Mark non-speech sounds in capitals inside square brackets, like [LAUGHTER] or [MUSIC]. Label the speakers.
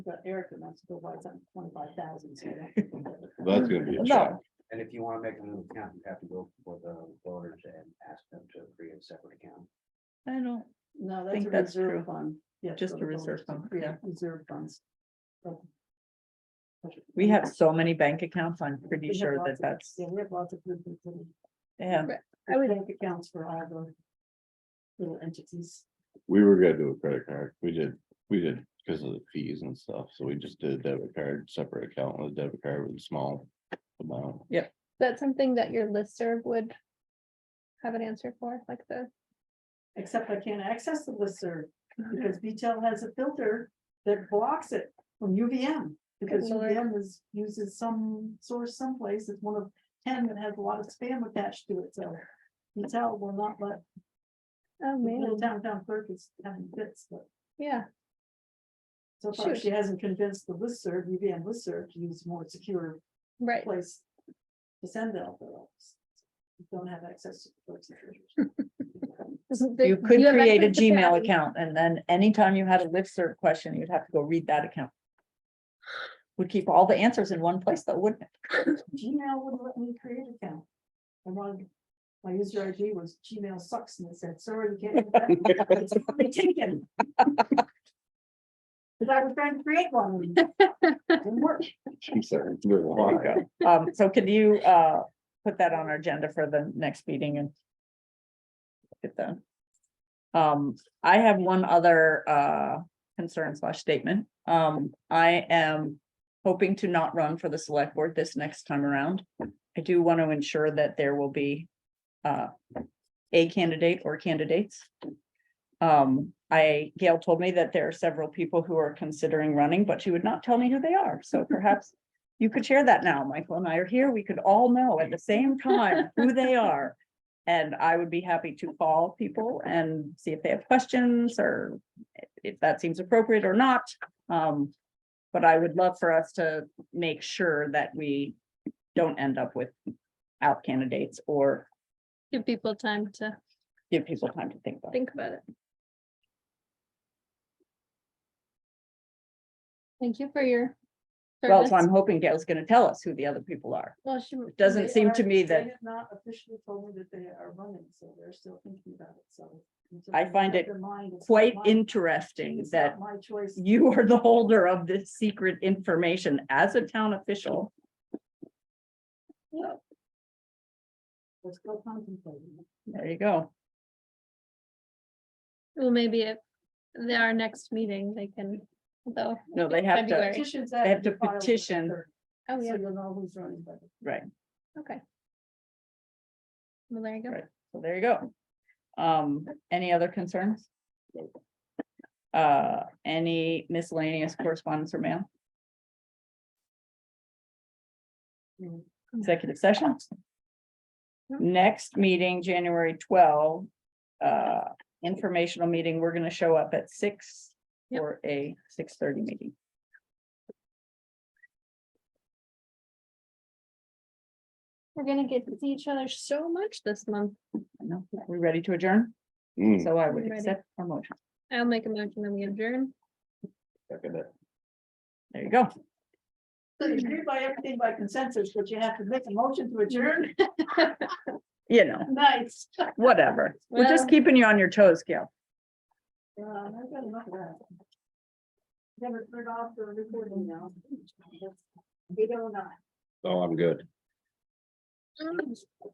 Speaker 1: But Erica wants to go buy something twenty-five thousand, so. that-
Speaker 2: [LAUGHS] That's gonna be a
Speaker 1: No.
Speaker 2: shock.
Speaker 3: And if you want to make another account, you have to go for the voters and ask them to create a separate account.
Speaker 4: I don't,
Speaker 1: No, that's
Speaker 4: Think
Speaker 1: a
Speaker 4: that's
Speaker 1: reserve
Speaker 4: true.
Speaker 1: fund. Yeah,
Speaker 4: Just
Speaker 1: for
Speaker 4: a
Speaker 1: the
Speaker 4: reserve
Speaker 1: voters to
Speaker 4: fund,
Speaker 1: create
Speaker 4: yeah.
Speaker 1: Reserve funds. But-
Speaker 4: we have so many bank accounts, I'm pretty
Speaker 1: We have
Speaker 4: sure
Speaker 1: lots
Speaker 4: that
Speaker 1: of-
Speaker 4: that's,
Speaker 1: Yeah, we have lots of good people.
Speaker 4: yeah,
Speaker 1: I would bank accounts for all the little entities.
Speaker 2: We were gonna do a credit card. We did, we did because of the fees and stuff. So we just did a debit card, separate account with a debit card with a small amount.
Speaker 5: That's something that your listserv would have an answer for, like the,
Speaker 1: Except I can't access the
Speaker 5: [LAUGHS]
Speaker 1: listserv because VTel has a filter that blocks it from UVM. Because
Speaker 5: Good lord.
Speaker 1: UVM is, uses some source someplace, it's one of ten that has a lot of spam attached to it, so. VTel will not let
Speaker 5: oh
Speaker 1: the
Speaker 5: man,
Speaker 1: little downtown clerk is having fits, but
Speaker 5: yeah,
Speaker 1: so far
Speaker 5: Shoot.
Speaker 1: she hasn't convinced the listserv, UVM listserv to use more secure
Speaker 5: right. [LAUGHS]
Speaker 1: place to send out the alerts. You Don't have access to the
Speaker 5: [LAUGHS]
Speaker 1: clerk's treasures.
Speaker 4: you could create a Gmail account and then anytime you had a listserv question, you'd have to go read that account. Would keep all the answers in one place though, wouldn't it?
Speaker 1: Gmail wouldn't let me create an account. I wanted, my user ID was Gmail sucks and it said, sorry, you can't. do that." It's already taken. [LAUGHS] Cause I was trying to create one. Didn't work.
Speaker 2: She said, "We're long gone."
Speaker 4: Um, so could you, uh, put that on our agenda for the next meeting and get that. Um, I have one other, uh, concern slash statement. Um, I am hoping to not run for the select board this next time around. I do want to ensure that there will be, uh, a candidate or candidates. Um, I, Gail told me that there are several people who are considering running, but she would not tell me who they are. So perhaps you could share that now, Michael and I are here, we could all know at the same time who they are. And I would be happy to call people and see if they have questions or if that seems appropriate or not. Um, but I would love for us to make sure that we don't end up with out candidates or
Speaker 5: Give people time to
Speaker 4: give people time to think about it.
Speaker 5: think about it. Thank you for your.
Speaker 4: Well,
Speaker 5: service.
Speaker 4: so I'm hoping Gail's gonna tell us who the other people are.
Speaker 5: Well, she
Speaker 4: It doesn't
Speaker 1: They
Speaker 4: seem
Speaker 1: are-
Speaker 4: to me
Speaker 1: they
Speaker 4: that-
Speaker 1: have Not officially told me that they are running, so they're still thinking about it, so. until
Speaker 4: I
Speaker 1: they
Speaker 4: find
Speaker 1: make
Speaker 4: it
Speaker 1: their mind, it's not
Speaker 4: Quite
Speaker 1: my-
Speaker 4: interesting
Speaker 1: it's
Speaker 4: that
Speaker 1: not My choice.
Speaker 4: you are the holder of this secret information as a town official.
Speaker 1: We're still contemplating.
Speaker 4: There you go.
Speaker 5: Well, maybe if the- our next meeting, they can, though,
Speaker 4: No, they have to,
Speaker 5: February.
Speaker 1: Petitions.
Speaker 4: They have
Speaker 1: to
Speaker 4: to
Speaker 1: be filed by the
Speaker 4: petition.
Speaker 1: 3rd,
Speaker 5: oh,
Speaker 1: So
Speaker 5: yeah,
Speaker 1: you'll know who's running, but.
Speaker 4: right,
Speaker 5: okay. Well, there you go.
Speaker 4: Right. so there you go. Um, any other concerns? Uh, any miscellaneous correspondence or mail,
Speaker 1: you
Speaker 4: executive session? Next meeting, January twelve, uh, informational meeting, we're gonna show up at six
Speaker 5: Yep.
Speaker 4: for a six thirty meeting.
Speaker 5: We're gonna get to see each other so much this month.
Speaker 4: I know. We ready to adjourn?
Speaker 2: Mm,
Speaker 4: So I would
Speaker 5: Ready.
Speaker 4: accept our motion.
Speaker 5: I'll make a motion that we adjourn.
Speaker 2: second it.
Speaker 4: There you go.
Speaker 1: So you agree by everything by consensus, but you have to make a motion to [LAUGHS] adjourn.
Speaker 4: You know,
Speaker 1: Nice.
Speaker 4: whatever. We're just
Speaker 5: Well-
Speaker 4: keeping you on your toes, Gail.
Speaker 1: Yeah, Uh, I've got enough of that. Never turn off the recording now. oh We don't know.
Speaker 2: Oh, I'm good.